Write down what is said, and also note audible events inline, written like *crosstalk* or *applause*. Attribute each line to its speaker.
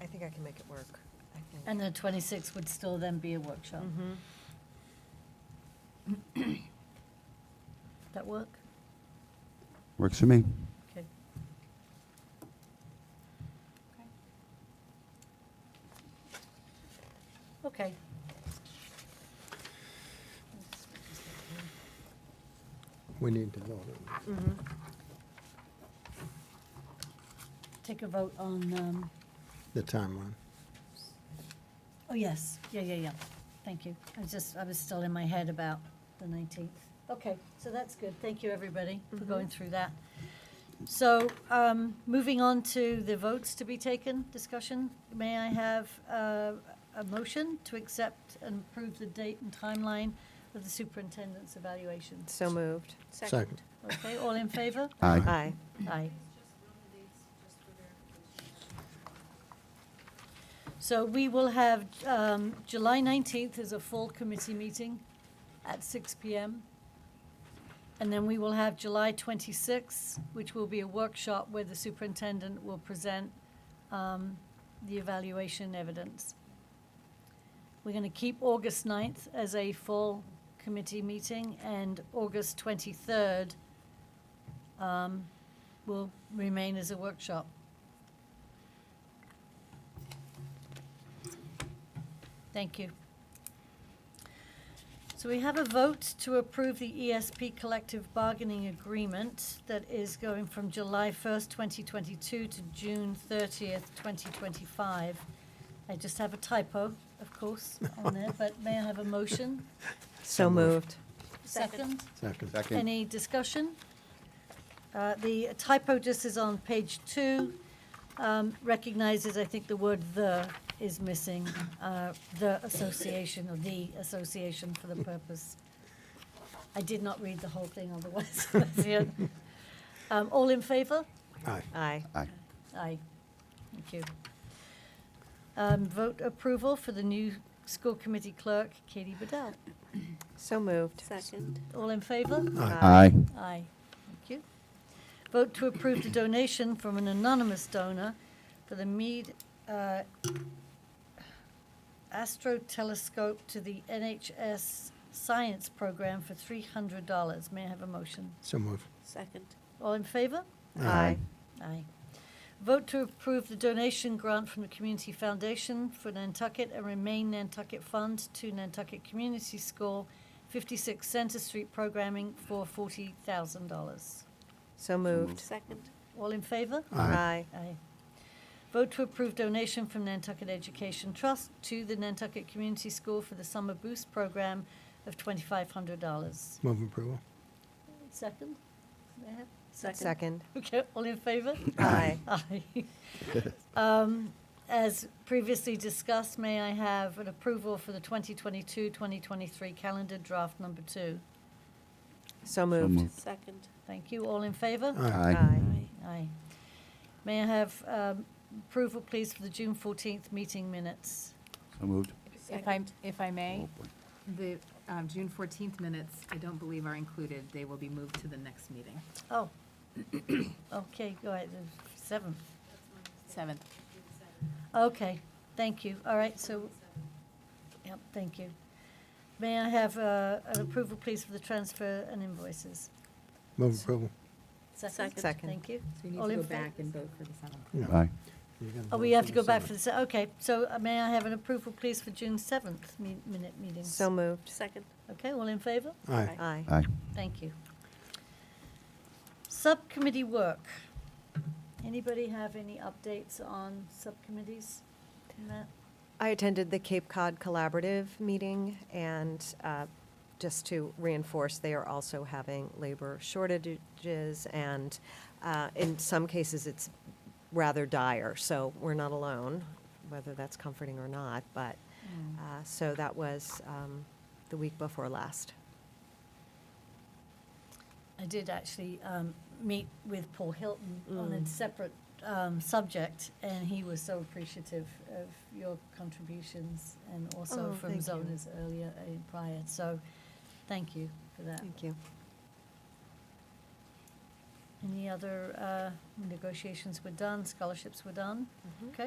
Speaker 1: I think I can make it work. I think.
Speaker 2: And the 26th would still then be a workshop.
Speaker 1: Mhm.
Speaker 3: Mm-hmm.
Speaker 2: That work?
Speaker 4: Works for me.
Speaker 2: Okay. Okay.
Speaker 5: We need to vote on this.
Speaker 3: Mm-hmm.
Speaker 2: Take a vote on, um,
Speaker 5: the timeline.
Speaker 2: oh, yes, yeah, yeah, yeah. Thank you. I was just, I was still in my head about the 19th. Okay, so that's good. Thank you, everybody, for going through that. So, um, moving on to the votes to be taken, discussion. May I have uh, a motion to accept and approve the date and timeline of the superintendent's evaluation?
Speaker 1: So moved.
Speaker 5: Second.
Speaker 2: Okay, all in favor?
Speaker 4: Aye.
Speaker 1: Aye.
Speaker 2: Aye. So we will have, um, July 19th is a full committee meeting at 6 PM. And then we will have July 26th, which will be a workshop where the superintendent will present um, the evaluation evidence. We're going to keep August 9th as a full committee meeting, and August 23rd um, will remain as a workshop. Thank you. So we have a vote to approve the ESP collective bargaining agreement that is going from July 1st, 2022 to June 30th, 2025. I just have a typo, of course, on there, but may I have a motion?
Speaker 1: So moved.
Speaker 2: Second?
Speaker 5: Second.
Speaker 4: Second.
Speaker 2: Any discussion? Uh, The typo just is on page two, um, recognizes, I think the word "the" is missing, uh, the association or the association for the purpose. I did not read the whole thing otherwise. *laughs* Um, All in favor?
Speaker 5: Aye.
Speaker 1: Aye.
Speaker 4: Aye.
Speaker 2: Aye. Thank you. Um, Vote approval for the new school committee clerk, Katie Bedell.
Speaker 1: So moved.
Speaker 3: Second.
Speaker 2: All in favor?
Speaker 4: Aye.
Speaker 2: Aye. Thank you. Vote to approve the donation from an anonymous donor for the Mead uh, Astro Telescope to the NHS Science Program for $300. May I have a motion?
Speaker 5: *laughs* So moved.
Speaker 3: Second.
Speaker 2: All in favor?
Speaker 1: Aye.
Speaker 2: Aye. Vote to approve the donation grant from the Community Foundation for Nantucket and Remain Nantucket Fund to Nantucket Community School, 56 Center Street Programming for $40,000.
Speaker 1: So moved.
Speaker 3: Second.
Speaker 2: All in favor?
Speaker 5: Aye.
Speaker 2: Aye. Vote to approve donation from Nantucket Education Trust to the Nantucket Community School for the Summer Boost Program of $2,500.
Speaker 5: Move approval.
Speaker 2: Second? May I have-
Speaker 1: Second.
Speaker 2: Okay, all in favor?
Speaker 1: Aye.
Speaker 2: Aye. Um, As previously discussed, may I have an approval for the 2022-2023 calendar draft number two?
Speaker 1: So
Speaker 4: So
Speaker 1: moved.
Speaker 4: moved.
Speaker 3: Second.
Speaker 2: Thank you. All in favor?
Speaker 4: Aye.
Speaker 2: Aye. May I have um, approval, please, for the June 14th meeting minutes?
Speaker 4: So moved.
Speaker 6: If I, if I may,
Speaker 4: Oh, boy.
Speaker 6: the um, June 14th minutes, I don't believe are included. They will be moved to the next meeting,
Speaker 2: Oh, *coughs* okay, go ahead, the seventh.
Speaker 6: 7th.
Speaker 2: Okay, thank you. All right, so, yep, thank you. May I have uh, an approval, please, for the transfer and invoices?
Speaker 5: Move approval.
Speaker 3: Second.
Speaker 1: Second.
Speaker 2: Thank you.
Speaker 6: So we need
Speaker 2: All
Speaker 6: to
Speaker 2: in
Speaker 6: go
Speaker 2: fa-
Speaker 6: back and vote for the 7th.
Speaker 5: No.
Speaker 4: Aye.
Speaker 5: You gotta
Speaker 2: Oh,
Speaker 5: vote
Speaker 2: we have to go back for
Speaker 5: seven.
Speaker 2: the, se- okay, so uh, may I have an approval, please, for June seventh minute meetings?
Speaker 1: So moved.
Speaker 3: Second.
Speaker 2: Okay, all in favor?
Speaker 5: Aye.
Speaker 1: Aye.
Speaker 4: Aye.
Speaker 2: Thank you. Subcommittee work. Anybody have any updates on subcommittees? Matt?
Speaker 1: I attended the Cape Cod Collaborative meeting, and uh, just to reinforce, they are also having labor shortages, and uh, in some cases, it's rather dire, so we're not alone, whether that's comforting or not, but, uh, so that was um, the week before last.
Speaker 2: I did actually um, meet with Paul Hilton on a
Speaker 1: Mm.
Speaker 2: separate um, subject, and he was so appreciative of your contributions and also
Speaker 1: Oh,
Speaker 2: from
Speaker 1: thank you.
Speaker 2: Zonas earlier, uh, prior, so thank you for that.
Speaker 1: Thank you.
Speaker 2: Any other uh, negotiations were done, scholarships were done? Okay.